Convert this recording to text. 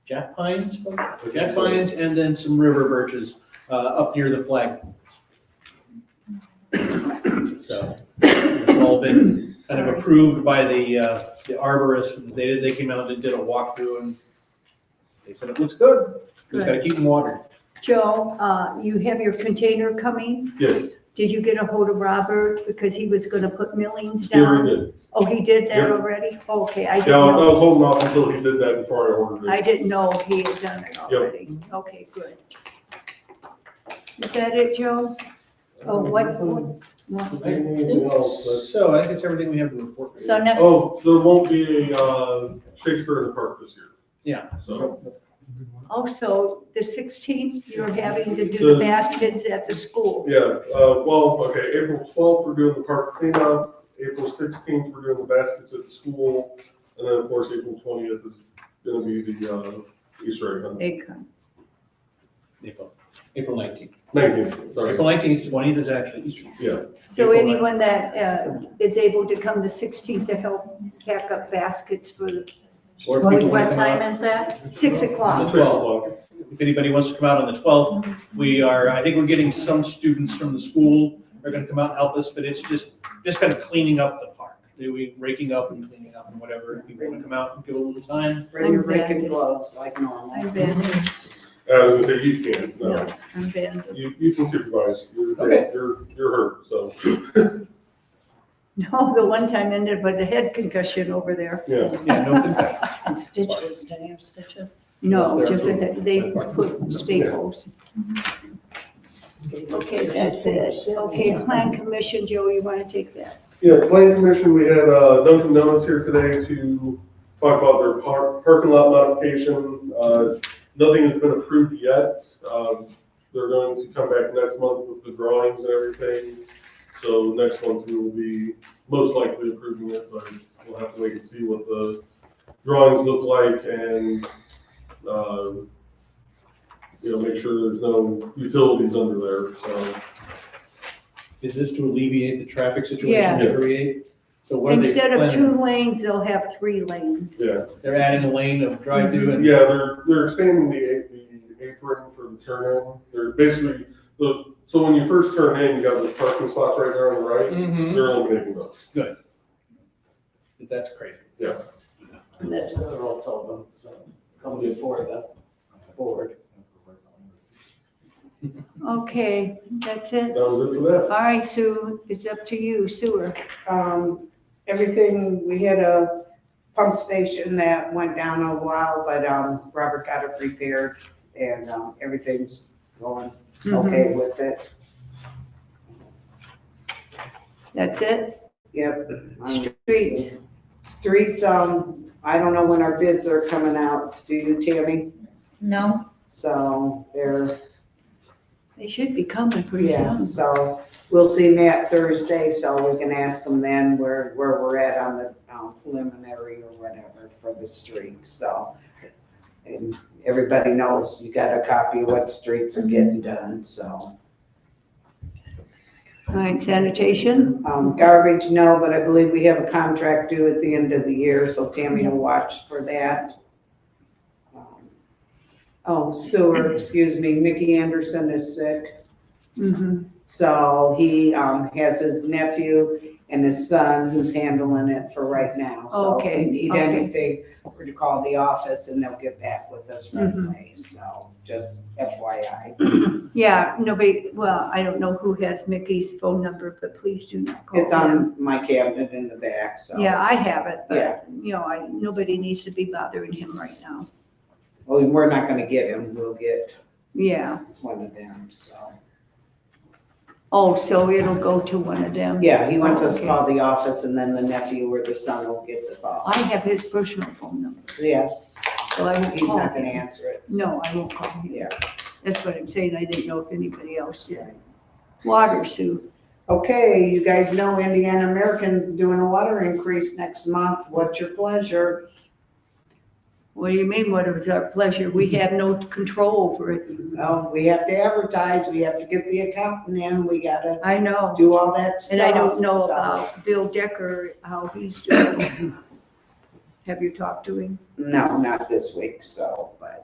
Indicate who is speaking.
Speaker 1: Jack Pines, or Jack
Speaker 2: Jack
Speaker 1: Pines, and then some river birches uh, up near the flag. So it's all been kind of approved by the, uh, the arborist. They, did- they came out and did a walkthrough and they said it looks good. Just gotta keep them watered.
Speaker 3: Joe, uh, you have your container coming?
Speaker 2: Yes.
Speaker 3: Did you get a hold of Robert because he was gonna put millings
Speaker 2: Yeah, we
Speaker 3: down?
Speaker 2: did.
Speaker 3: Oh, he did that
Speaker 2: Yep.
Speaker 3: already? Okay, I didn't
Speaker 2: Yeah, I
Speaker 3: know.
Speaker 2: was holding off until he did that before I ordered
Speaker 3: I
Speaker 2: it.
Speaker 3: didn't know he had done it already. Okay, good. Is that it, Joe? Oh, what, what- what?
Speaker 2: Anything else, but-
Speaker 1: So I think it's everything we have to report.
Speaker 3: So next,
Speaker 2: Oh, there won't be a uh, Shakespeare in the Park this year.
Speaker 1: Yeah.
Speaker 2: So,
Speaker 3: also, the 16th, you're having to do the
Speaker 2: The-
Speaker 3: baskets at the school.
Speaker 2: yeah, uh, well, okay, April twelfth, we're doing the park cleanup. April sixteenth, we're doing the baskets at the school. And then, of course, April twentieth is gonna be the, uh, Easter egg hunt.
Speaker 3: They come.
Speaker 1: April, April nineteenth.
Speaker 2: Nineteenth, sorry.
Speaker 1: April nineteenth, twentieth is actually Easter.
Speaker 2: Yeah,
Speaker 3: So
Speaker 1: People that-
Speaker 3: anyone that uh, is able to come the 16th to help pack up baskets for the
Speaker 1: Or if
Speaker 4: What
Speaker 1: people wanna
Speaker 4: what
Speaker 1: come out-
Speaker 4: time is that?
Speaker 3: 6
Speaker 2: six
Speaker 3: o'clock.
Speaker 2: o'clock.
Speaker 1: If anybody wants to come out on the twelfth, we are, I think we're getting some students from the school. They're gonna come out and help us, but it's just, just kind of cleaning up the park. They're we raking up and cleaning up and whatever. If people wanna come out and give a little time.
Speaker 5: Bring your
Speaker 3: I'm
Speaker 5: rake and
Speaker 3: bad.
Speaker 5: gloves like normal.
Speaker 3: I'm banned,
Speaker 2: Uh, I was gonna say, you can, no,
Speaker 3: I'm banned.
Speaker 2: you, you can supervise. You're,
Speaker 1: Okay.
Speaker 2: you're, you're hurt, so,
Speaker 3: No, the one time ended with a head concussion over there.
Speaker 2: yeah.
Speaker 1: Yeah, no confession.
Speaker 5: And stitches, do you have stitches?
Speaker 3: No, just a head, they put staples. Okay, that's it. Okay, plan commission, Joe, you want to take that?
Speaker 2: Yeah, planning commission, we had uh, Dunkin' Donuts here today to talk about their par- parking lot modification. Uh, Nothing has been approved yet. Um, They're going to come back next month with the drawings and everything. So next month we will be most likely approving it, but we'll have to wait and see what the drawings look like and, um, you know, make sure there's no utilities under there, so.
Speaker 1: Is this to alleviate the traffic situation
Speaker 2: Yes.
Speaker 1: they create? So what are they
Speaker 3: Instead of
Speaker 1: planning?
Speaker 3: two lanes, they'll have three lanes.
Speaker 2: Yeah,
Speaker 1: They're adding a lane of drive-through and.
Speaker 2: Yeah, they're, they're expanding the, a- the apron for the turn in. They're basically, those, so when you first turn in, you got those parking spots right there on the right.
Speaker 1: Mhm.
Speaker 2: They're eliminating those.
Speaker 1: 'Cause That's crazy.
Speaker 6: And that's another all told them, so come before the board.
Speaker 3: Okay, that's
Speaker 2: That
Speaker 3: it.
Speaker 2: was it for that.
Speaker 3: All right, Sue, it's up to you, sewer.
Speaker 7: um, everything, we had a pump station that went down a while, but, um, Robert got it repaired and, um, everything's going
Speaker 3: Mm-hmm.
Speaker 7: okay with it.
Speaker 3: That's it?
Speaker 7: Yep. Um,
Speaker 3: Streets.
Speaker 7: Streets, um, I don't know when our bids are coming out, do you, Tammy?
Speaker 4: No,
Speaker 7: So they're,
Speaker 3: They should be coming pretty
Speaker 7: yeah,
Speaker 3: soon.
Speaker 7: so we'll see Matt Thursday, so we can ask him then where, where we're at on the um, preliminary or whatever for the streets, so. And everybody knows you got a copy of what streets are getting
Speaker 3: Mm-hmm.
Speaker 7: done, so.
Speaker 3: All right, sanitation,
Speaker 7: Um, garbage, no, but I believe we have a contract due at the end of the year, so Tammy will watch for that. Um, Oh, sewer, excuse me, Mickey Anderson is sick.
Speaker 3: mhm,
Speaker 7: So he um, has his nephew and his son who's handling it for right now. So if
Speaker 3: Okay,
Speaker 7: we need
Speaker 3: okay.
Speaker 7: anything, we're to call the office and they'll get back with us right
Speaker 3: Mhm.
Speaker 7: away. So just FYI.
Speaker 3: yeah, nobody, well, I don't know who has Mickey's phone number, but please do not call
Speaker 7: It's
Speaker 3: them.
Speaker 7: on my cabinet in the back, so.
Speaker 3: Yeah, I have it,
Speaker 7: Yeah.
Speaker 3: but, you know, I, nobody needs to be bothering him right now.
Speaker 7: Well, we're not gonna get him. We'll get
Speaker 3: Yeah,
Speaker 7: one of them, so.
Speaker 3: oh, so it'll go to one of them?
Speaker 7: Yeah, he wants us to
Speaker 3: Okay.
Speaker 7: call the office and then the nephew or the son will get the call.
Speaker 3: I have his personal phone number,
Speaker 7: Yes,
Speaker 3: so I won't
Speaker 7: he's
Speaker 3: call
Speaker 7: not gonna
Speaker 3: him.
Speaker 7: answer it.
Speaker 3: No, I won't call him.
Speaker 7: Yeah.
Speaker 3: That's what I'm saying, I didn't know if anybody else did. Water, Sue,
Speaker 7: Okay, you guys know Indiana American's doing a water increase next month. What's your pleasure?
Speaker 3: what do you mean, what is our pleasure? We have no control over it.
Speaker 7: Well, we have to advertise, we have to get the accountant in, we gotta
Speaker 3: I know.
Speaker 7: do all that stuff.
Speaker 3: And I don't know
Speaker 7: so-
Speaker 3: about Bill Decker, how he's doing. Have you talked to him?
Speaker 7: No, not this week, so, but